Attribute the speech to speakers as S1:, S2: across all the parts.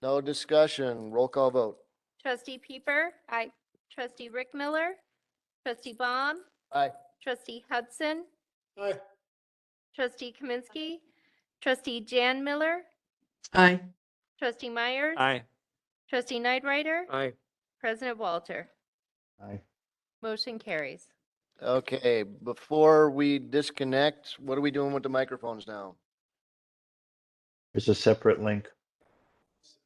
S1: No discussion. Roll call vote.
S2: Trustee Peeper. Aye. Trustee Rick Miller. Trustee Baum.
S1: Aye.
S2: Trustee Hudson.
S1: Aye.
S2: Trustee Kaminsky. Trustee Jan Miller.
S3: Aye.
S2: Trustee Myers.
S4: Aye.
S2: Trustee Nightrider.
S4: Aye.
S2: President Walter.
S1: Aye.
S2: Motion carries.
S1: Okay, before we disconnect, what are we doing with the microphones now?
S5: There's a separate link.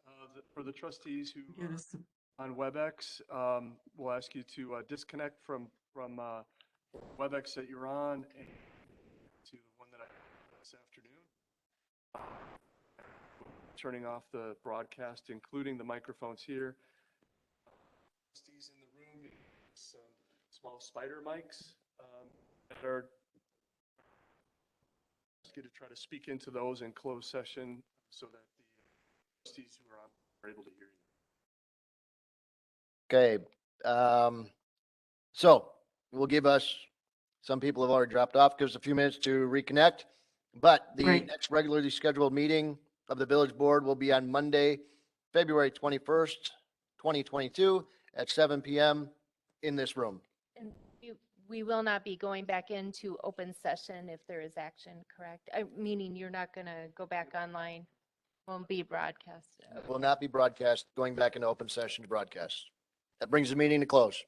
S6: uh, the- For the trustees who
S3: Get
S6: are
S3: us some-
S6: on WebEx, um, we'll ask you to uh, disconnect from, from uh, WebEx that you're on and to the one that I have this afternoon. Um, Turning off the broadcast, including the microphones here. Trustees in the room, some small spider mics um, that are ask you to try to speak into those in closed session so that the trustees who are on are able to hear you.
S1: Okay, um, so we'll give us, some people have already dropped off, give us a few minutes to reconnect. But the
S3: Right.
S1: next regularly scheduled meeting of the village board will be on Monday, February twenty-first, twenty twenty-two at seven PM in this room.
S2: And you- we will not be going back into open session if there is action, correct? Uh, Meaning you're not going to go back online, won't be broadcast.
S1: It Will not be broadcast, going back into open session to broadcast. That brings the meeting to close.